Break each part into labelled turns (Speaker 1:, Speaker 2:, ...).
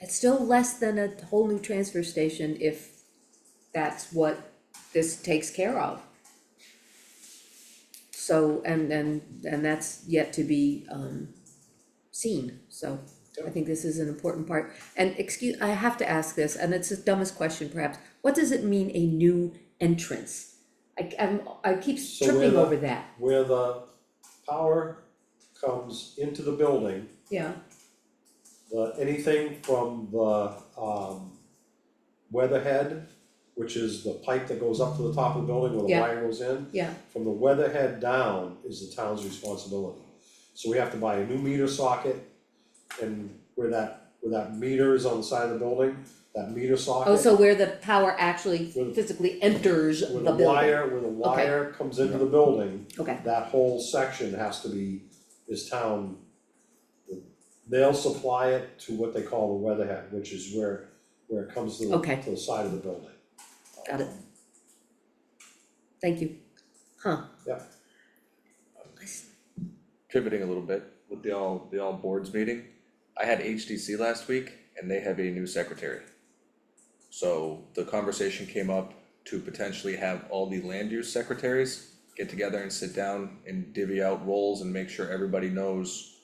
Speaker 1: It's still less than a whole new transfer station if that's what this takes care of. So, and and and that's yet to be um seen, so I think this is an important part. And excuse, I have to ask this, and it's the dumbest question perhaps, what does it mean a new entrance? I I'm, I keep
Speaker 2: So where
Speaker 1: tripping
Speaker 2: the-
Speaker 1: over that,
Speaker 2: Where the power comes into the building,
Speaker 1: yeah,
Speaker 2: the, anything from the, um, weatherhead, which is the pipe that goes up to the top of the building where the
Speaker 1: Yeah.
Speaker 2: wire goes in,
Speaker 1: yeah,
Speaker 2: from the weatherhead down is the town's responsibility. So we have to buy a new meter socket, and where that, where that meter is on the side of the building, that meter socket.
Speaker 1: oh, so where the power actually
Speaker 2: Where the-
Speaker 1: physically enters the
Speaker 2: Where
Speaker 1: building.
Speaker 2: the wire, where the wire comes into the building,
Speaker 1: Okay,
Speaker 2: that whole section has to be, is town. They'll supply it to what they call the weatherhead, which is where, where it comes to the,
Speaker 1: Okay.
Speaker 2: to the side of the building.
Speaker 1: Got it. thank you, huh.
Speaker 2: Yeah.
Speaker 1: I s-
Speaker 3: pivoting a little bit with the all, the all boards meeting. I had HDC last week and they have a new secretary. So the conversation came up to potentially have all the land use secretaries get together and sit down and divvy out roles and make sure everybody knows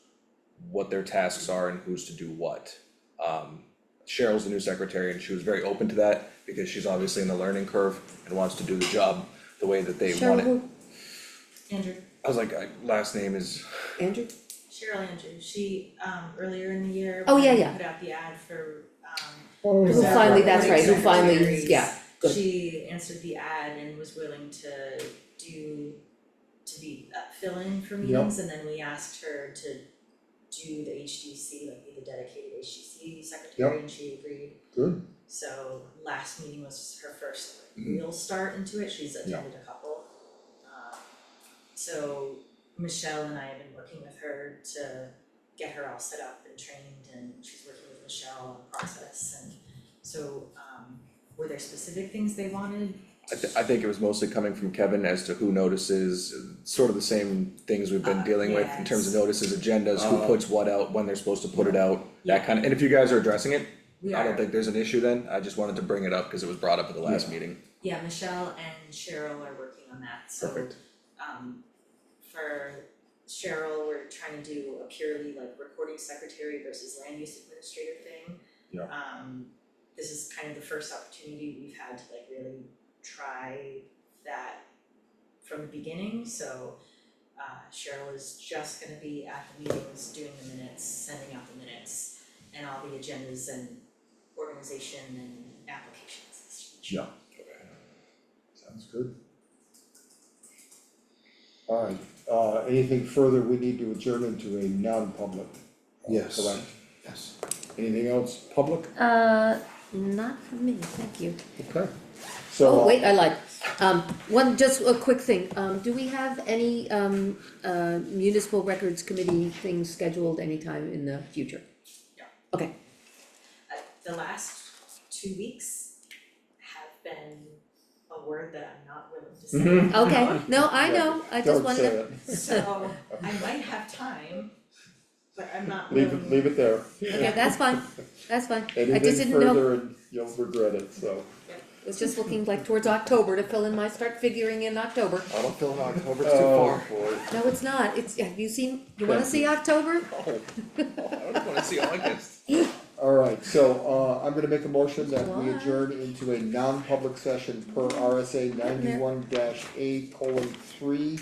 Speaker 3: what their tasks are and who's to do what. Um, Cheryl's the new secretary and she was very open to that because she's obviously in the learning curve and wants to do the job the way that they
Speaker 1: Cheryl,
Speaker 3: want it.
Speaker 1: who-
Speaker 4: Andrew,
Speaker 3: I was like, I, last name is
Speaker 1: Andrew,
Speaker 4: Cheryl Andrew, she, um, earlier in the year.
Speaker 1: Oh,
Speaker 4: when
Speaker 1: yeah,
Speaker 4: we
Speaker 1: yeah.
Speaker 4: Put out the ad for, um.
Speaker 1: who
Speaker 4: Zach
Speaker 1: finally,
Speaker 4: Roberts
Speaker 1: that's right, who finally,
Speaker 4: secretaries,
Speaker 1: yeah, good.
Speaker 4: She answered the ad and was willing to do, to be uh, fill-in for meetings, and then we asked her to do the HDC, like be the dedicated HDC secretary, and she agreed.
Speaker 2: Good.
Speaker 4: So last meeting was her first like,
Speaker 3: Mhm.
Speaker 4: real start into it, she's attended a couple. Um, So Michelle and I have been working with her to get her all set up and trained and she's working with Michelle on the process and so um were there specific things they wanted?
Speaker 3: I th- I think it was mostly coming from Kevin as to who notices, sort of the same things we've been
Speaker 4: Uh,
Speaker 3: dealing with in terms of notices, agendas, who
Speaker 5: Uh-huh.
Speaker 2: Uh.
Speaker 3: puts what out, when they're supposed to put it out,
Speaker 4: Yeah.
Speaker 3: that kind of, and if you guys are addressing it,
Speaker 4: We
Speaker 3: I
Speaker 4: are-
Speaker 3: don't think there's an issue then, I just wanted to bring it up, cause it was brought up at the last meeting.
Speaker 4: Yeah, Michelle and Cheryl are working on that, so
Speaker 3: Perfect.
Speaker 4: um for Cheryl, we're trying to do a purely like recording secretary versus land use administrator thing.
Speaker 2: Yeah.
Speaker 4: Um this is kind of the first opportunity we've had to like really try that from the beginning, so uh Cheryl is just gonna be at the meetings, doing the minutes, sending out the minutes and all the agendas and organization and applications.
Speaker 2: Yeah. Sounds good.
Speaker 5: Alright, uh, anything further, we need to adjourn into a non-public. uh,
Speaker 2: Yes.
Speaker 5: Correct,
Speaker 2: Yes.
Speaker 5: anything else, public?
Speaker 1: Uh, not for me, thank you.
Speaker 5: Okay. So,
Speaker 1: Oh,
Speaker 5: uh,
Speaker 1: wait, I lied. Um, one, just a quick thing, um, do we have any, um, uh, municipal records committee things scheduled anytime in the future?
Speaker 4: No.
Speaker 1: Okay,
Speaker 4: uh, the last two weeks have been a word that I'm not willing to say.
Speaker 1: okay, no, I know, I just
Speaker 5: don't
Speaker 1: wanted
Speaker 5: say
Speaker 1: to,
Speaker 5: it,
Speaker 4: So I might have time, but I'm not
Speaker 5: leave it,
Speaker 4: willing-
Speaker 5: leave it there.
Speaker 1: okay, that's fine, that's fine. I just
Speaker 5: Anything
Speaker 1: didn't know,
Speaker 5: further and you'll regret it, so.
Speaker 1: was just looking like towards October to fill in my, start figuring in October.
Speaker 3: I don't feel October's
Speaker 5: Oh, boy.
Speaker 1: No, it's not, it's, have you seen, you wanna see October?
Speaker 5: Oh,
Speaker 3: I don't wanna see August.
Speaker 5: Alright, so, uh, I'm gonna make a motion that we
Speaker 1: Why?
Speaker 5: adjourn into a non-public session per RSA ninety-one dash A colon three,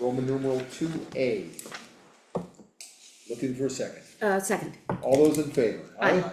Speaker 5: Roman numeral two A. Looking for a second,
Speaker 1: Uh, second.
Speaker 5: all those in favor?
Speaker 1: Aye.
Speaker 3: Aye.